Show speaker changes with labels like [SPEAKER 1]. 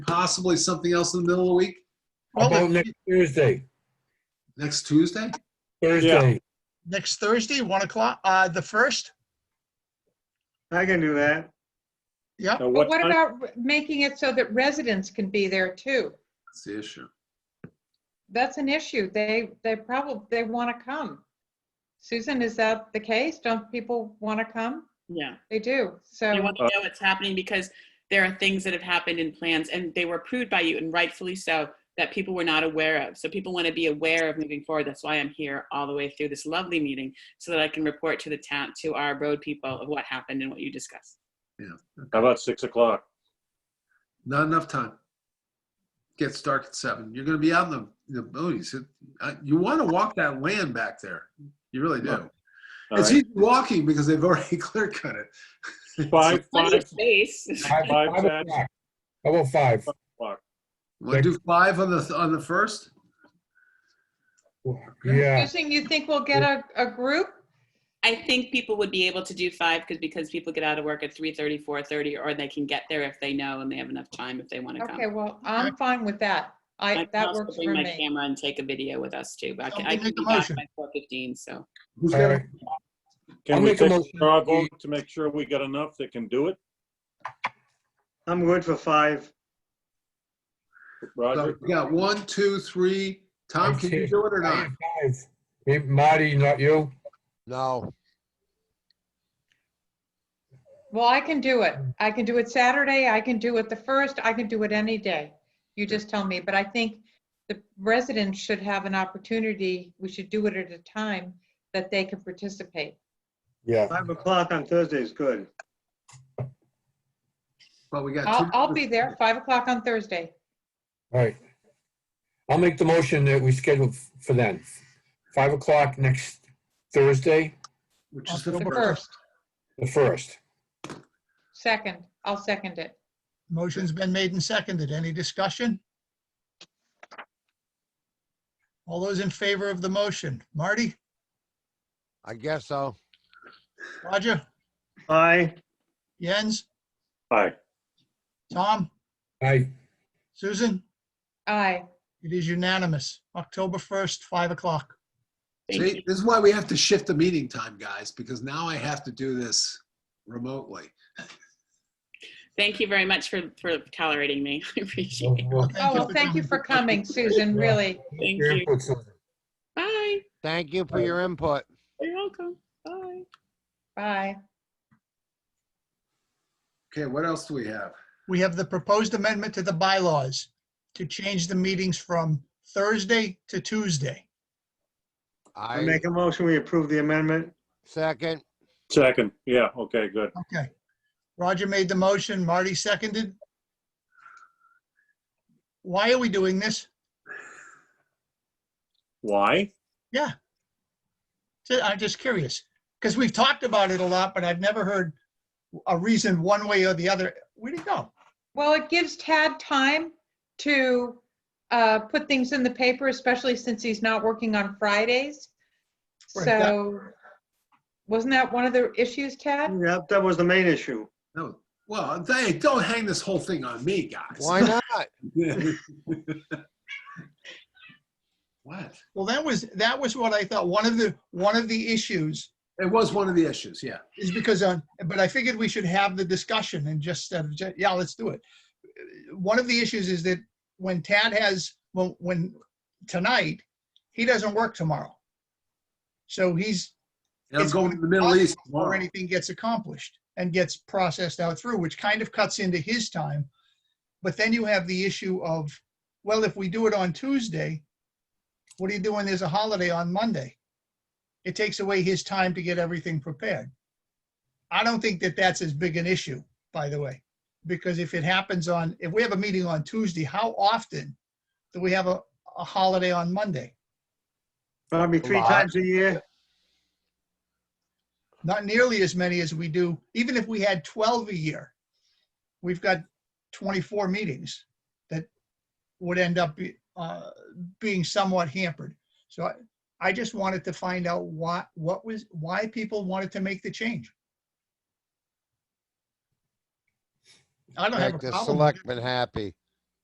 [SPEAKER 1] possibly something else in the middle of the week,
[SPEAKER 2] Well,
[SPEAKER 3] About
[SPEAKER 2] the-
[SPEAKER 3] next Thursday,
[SPEAKER 1] next Tuesday?
[SPEAKER 3] Thursday.
[SPEAKER 2] next Thursday, 1 o'clock, uh, the 1st?
[SPEAKER 4] I can do that.
[SPEAKER 2] Yeah,
[SPEAKER 5] Now,
[SPEAKER 6] But
[SPEAKER 5] what
[SPEAKER 6] what
[SPEAKER 5] time-
[SPEAKER 6] about re- making it so that residents can be there too?
[SPEAKER 1] That's the issue.
[SPEAKER 6] That's an issue. They, they probably, they want to come. Susan, is that the case? Don't people want to come?
[SPEAKER 7] Yeah,
[SPEAKER 6] They do.
[SPEAKER 7] they
[SPEAKER 6] So,
[SPEAKER 7] want to know what's happening because there are things that have happened in plans and they were approved by you and rightfully so that people were not aware of. So people want to be aware of moving forward. That's why I'm here all the way through this lovely meeting so that I can report to the town, to our road people of what happened and what you discussed.
[SPEAKER 5] How about 6 o'clock?
[SPEAKER 1] Not enough time. Gets dark at seven. You're gonna be out in the, the boonies. It- uh, You wanna walk that land back there. You really do.
[SPEAKER 5] All
[SPEAKER 1] It's
[SPEAKER 5] right.
[SPEAKER 1] easy walking because they've already clear cut it.
[SPEAKER 5] Five,
[SPEAKER 7] Plenty
[SPEAKER 5] five
[SPEAKER 7] of space.
[SPEAKER 3] Five-
[SPEAKER 5] Five,
[SPEAKER 3] five
[SPEAKER 5] Saturday.
[SPEAKER 3] o'clock. How about five?
[SPEAKER 5] o'clock.
[SPEAKER 1] Wanna do five on the, on the first?
[SPEAKER 3] Yeah,
[SPEAKER 6] Susan, you think we'll get a, a group?
[SPEAKER 7] I think people would be able to do five because, because people get out of work at 3.30, 4.30 or they can get there if they know and they have enough time if they want to
[SPEAKER 6] Okay,
[SPEAKER 7] come.
[SPEAKER 6] well, I'm fine with that.
[SPEAKER 7] I
[SPEAKER 6] I,
[SPEAKER 7] can
[SPEAKER 6] that
[SPEAKER 7] also
[SPEAKER 6] works
[SPEAKER 7] bring
[SPEAKER 6] for
[SPEAKER 7] my
[SPEAKER 6] me.
[SPEAKER 7] camera and take a video with us too. But I can, I
[SPEAKER 2] Somebody
[SPEAKER 7] can
[SPEAKER 2] make
[SPEAKER 7] be
[SPEAKER 2] a
[SPEAKER 7] back
[SPEAKER 2] motion.
[SPEAKER 7] by 4.15, so.
[SPEAKER 1] Who's
[SPEAKER 3] all
[SPEAKER 1] gonna-
[SPEAKER 3] right. I'll
[SPEAKER 5] Can we
[SPEAKER 3] make a
[SPEAKER 5] take a
[SPEAKER 3] motion.
[SPEAKER 5] straw vote to make sure we got enough that can do it?
[SPEAKER 4] I'm good for five.
[SPEAKER 1] So
[SPEAKER 5] Roger?
[SPEAKER 1] we got one, two, three. Tom, can you do it or not?
[SPEAKER 3] Five. Hey, Marty, not you?
[SPEAKER 8] No,
[SPEAKER 6] Well, I can do it. I can do it Saturday. I can do it the first. I can do it any day. You just tell me. But I think the residents should have an opportunity. We should do it at a time that they can participate.
[SPEAKER 3] Yeah.
[SPEAKER 4] Five o'clock on Thursday is good.
[SPEAKER 1] Well, we got.
[SPEAKER 6] I'll,
[SPEAKER 1] two-
[SPEAKER 6] I'll be there, 5 o'clock on Thursday.
[SPEAKER 3] All right. I'll make the motion that we schedule f- for then. Five o'clock next Thursday,
[SPEAKER 1] Which is the
[SPEAKER 6] The
[SPEAKER 1] first.
[SPEAKER 6] first,
[SPEAKER 3] the first.
[SPEAKER 6] second, I'll second it.
[SPEAKER 2] motion's been made and seconded. Any discussion? All those in favor of the motion? Marty,
[SPEAKER 8] I guess so.
[SPEAKER 2] Roger,
[SPEAKER 4] Aye.
[SPEAKER 2] Jens,
[SPEAKER 5] Aye.
[SPEAKER 2] Tom,
[SPEAKER 3] I,
[SPEAKER 2] Susan?
[SPEAKER 6] Aye,
[SPEAKER 2] It is unanimous. October 1st, 5 o'clock.
[SPEAKER 7] Thank you.
[SPEAKER 1] See, this is why we have to shift the meeting time, guys, because now I have to do this remotely.
[SPEAKER 7] Thank you very much for, for tolerating me. I appreciate it.
[SPEAKER 3] well,
[SPEAKER 6] oh, well, thank you for coming, Susan, really.
[SPEAKER 7] Thank
[SPEAKER 3] your
[SPEAKER 7] you.
[SPEAKER 3] input's on.
[SPEAKER 7] Bye.
[SPEAKER 8] Thank you for your input.
[SPEAKER 7] You're welcome. Bye.
[SPEAKER 6] Bye.
[SPEAKER 1] Okay, what else do we have?
[SPEAKER 2] We have the proposed amendment to the bylaws to change the meetings from Thursday to Tuesday.
[SPEAKER 4] I
[SPEAKER 8] I
[SPEAKER 4] make a motion, we approve the amendment.
[SPEAKER 8] second.
[SPEAKER 5] Second, yeah, okay, good.
[SPEAKER 2] Okay. Roger made the motion, Marty seconded. Why are we doing this?
[SPEAKER 5] Why?
[SPEAKER 2] Ju- I'm just curious, because we've talked about it a lot, but I've never heard a reason one way or the other. Where'd it go?
[SPEAKER 6] Well, it gives Tad time to uh, put things in the paper, especially since he's not working on Fridays.
[SPEAKER 2] Right, that-
[SPEAKER 6] So wasn't that one of the issues, Tad?
[SPEAKER 4] Yeah, that was the main issue.
[SPEAKER 1] No, well, hey, don't hang this whole thing on me, guys.
[SPEAKER 8] Why not?
[SPEAKER 1] What?
[SPEAKER 2] Well, that was, that was what I thought. One of the, one of the issues
[SPEAKER 1] It was one of the issues, yeah.
[SPEAKER 2] is because on, but I figured we should have the discussion and just, uh, ju- yeah, let's do it. One of the issues is that when Tad has, when, when, tonight, he doesn't work tomorrow. So he's,
[SPEAKER 1] And I'm
[SPEAKER 2] It's
[SPEAKER 1] going to the Middle East
[SPEAKER 2] or
[SPEAKER 1] tomorrow.
[SPEAKER 2] anything gets accomplished and gets processed out through, which kind of cuts into his time. But then you have the issue of, well, if we do it on Tuesday, what do you do when there's a holiday on Monday? It takes away his time to get everything prepared. I don't think that that's as big an issue, by the way, because if it happens on, if we have a meeting on Tuesday, how often do we have a, a holiday on Monday?
[SPEAKER 4] Probably three
[SPEAKER 8] Lot.
[SPEAKER 4] times a year.
[SPEAKER 2] not nearly as many as we do, even if we had 12 a year. We've got 24 meetings that would end up be- uh, being somewhat hampered. So I, I just wanted to find out why, what was, why people wanted to make the change. I don't have
[SPEAKER 8] Make
[SPEAKER 2] a
[SPEAKER 8] the
[SPEAKER 2] problem. with it.
[SPEAKER 8] selectmen happy.